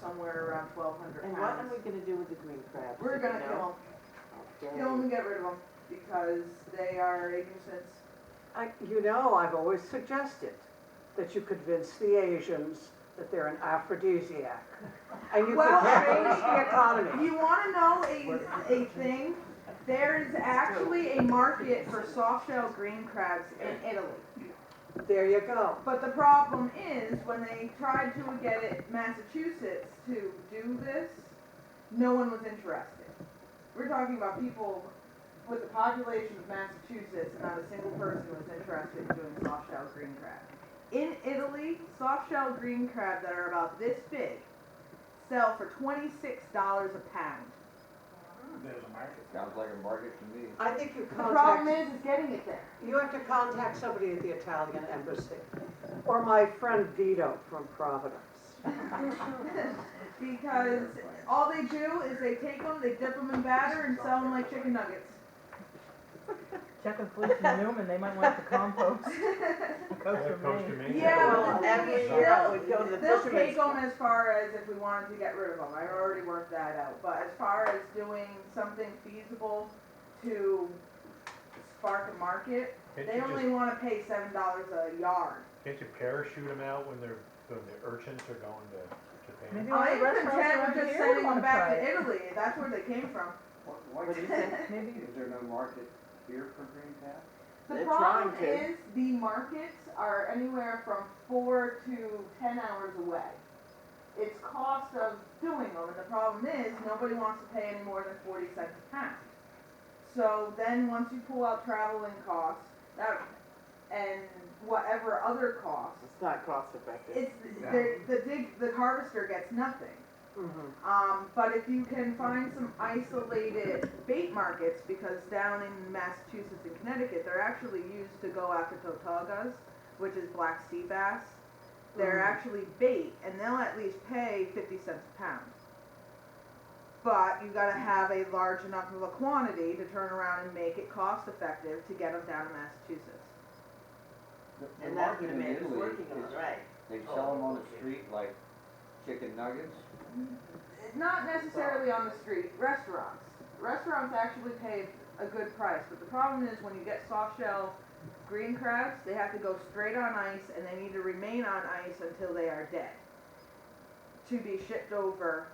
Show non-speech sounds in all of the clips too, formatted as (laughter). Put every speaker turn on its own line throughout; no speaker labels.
somewhere around twelve hundred
And what
pounds.
are we gonna do with the green crabs?
We're gonna
you know?
kill them, kill them and get rid of them, because they are a nuisance.
I, you know, I've always suggested that you convince the Asians that they're an aphrodisiac. And you
Well,
could change the
If
economy.
You wanna know a, a thing? There is actually a market for soft shell green crabs in Italy.
There you go.
But the problem is, when they tried to get it, Massachusetts to do this, no one was interested. We're talking about people with the population of Massachusetts, not a single person was interested in doing soft shell green crab. In Italy, soft shell green crab that are about this big sell for twenty-six dollars a pound.
There's a market.
Sounds like a market to me.
I think you
The problem
contact,
is, is getting it there.
you have to contact somebody at the Italian embassy. Or my friend Vito from Providence.
(laughs) Because all they do is they take them, they dip them in batter and sell them like chicken nuggets.
Check with Felicia Newman, they might want the compost.
(laughs)
Compost
Comes
remains.
to me.
Yeah,
Well,
but the
every
thing is,
year I would go to the
they'll, they'll
fisherman's
take them
club.
as far as if we wanted to get rid of them, I already worked that out, but as far as doing something feasible to spark a market,
Can't
they
you
only
just,
wanna pay seven dollars a yard.
can't you parachute them out when they're, when the urchins are going to Japan?
Maybe all
I
the
am
restaurants
content
around
with just
here
sending
wanna
them back
try
to
it.
Italy, that's where they came from.
What do you think? Maybe
Is there no market here for green tabs?
The
They're
problem
trying to.
is, the markets are anywhere from four to ten hours away. It's cost of doing them, and the problem is, nobody wants to pay any more than forty cents a pound. So then, once you pull out traveling costs, that, and whatever other costs,
It's not cost effective.
it's, the, the dig, the harvester gets nothing.
Mhm.
Um, but if you can find some isolated bait markets, because down in Massachusetts and Connecticut, they're actually used to go after totagas, which is black sea bass. They're
Mhm.
actually bait, and they'll at least pay fifty cents a pound. But you gotta have a large enough of a quantity to turn around and make it cost effective to get them down to Massachusetts.
The- the
And that's
market
what
in
Amanda's
Italy
working on,
is-
right? Oh,
They sell them on the street like chicken nuggets.
Not necessarily on the street, restaurants. Restaurants actually pay a good price, but the problem is when you get soft shell green crabs, they have to go straight on ice and they need to remain on ice until they are dead to be shipped over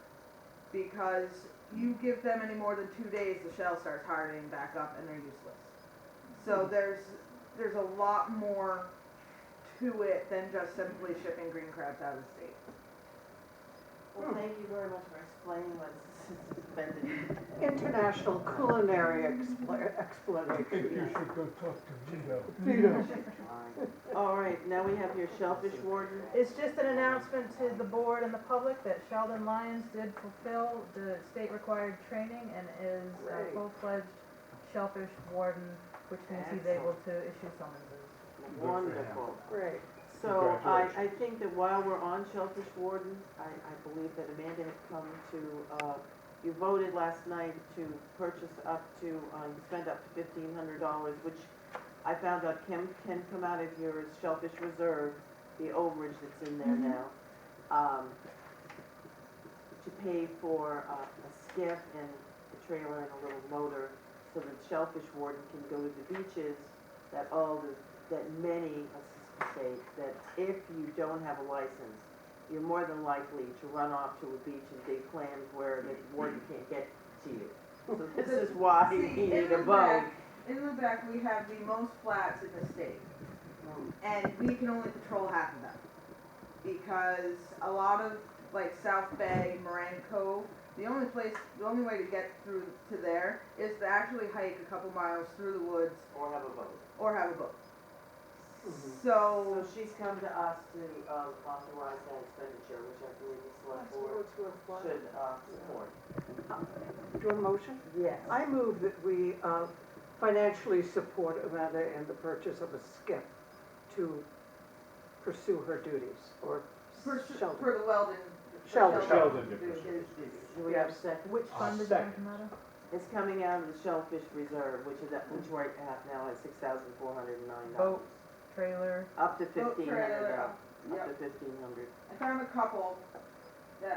because you give them any more than two days, the shell starts hardening back up and they're useless. So there's, there's a lot more to it than just simply shipping green crabs out of the state. Hmm.
Well, thank you very much for explaining what's (laughs) suspended.
International culinary expla- explanation. Vito.
All right, now we have your shellfish warden.
It's just an announcement to the board and the public that Sheldon Lyons did fulfill the state required training and is
Great.
a full-fledged shellfish warden, which means he's able to issue summonses.
Wonderful.
Great.
So I, I think that while we're on shellfish warden, I, I believe that Amanda had come to, uh, you voted last night to purchase up to, um, spend up to fifteen hundred dollars, which I found out can, can come out of your shellfish reserve, the overage that's in there now, um, to pay for uh, a skiff and a trailer and a little motor so that shellfish warden can go to the beaches that all the that many, let's just say, that if you don't have a license, you're more than likely to run off to a beach and dig clams where the warden can't get to (laughs) you. So this is why
See,
you
in
need
the
a boat.
back- In Lubec, we have the most flats in the state,
Mm,
and we can only patrol half of them. Because a lot of, like, South Bay, Moran Cove, the only place, the only way to get through to there is to actually hike a couple miles through the woods
Or have a boat.
or have a boat.
Mhm.
So,
So she's come to us to um, authorize that expenditure, which I believe the select board should uh, support.
Your motion?
Yes.
I move that we uh, financially support Amanda in the purchase of a skiff to pursue her duties or
for,
shelter.
for the Weldon. for
Sheldon.
Sheldon
to do
Dickerson.
his duties.
Do we have a second?
Which
I'll
fund is going to
second.
come out of?
It's coming out of the shellfish reserve, which is, at- which we're at now at six thousand four hundred and nine dollars.
Boat, trailer.
Up to
Boat
fifteen hundred
trailer,
dollars,
yep.
up to fifteen hundred.
I found a couple